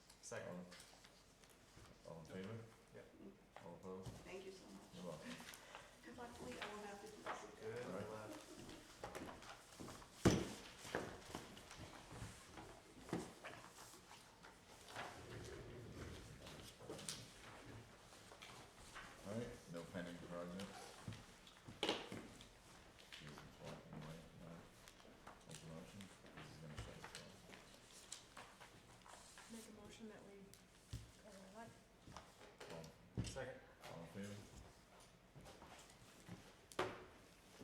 favor?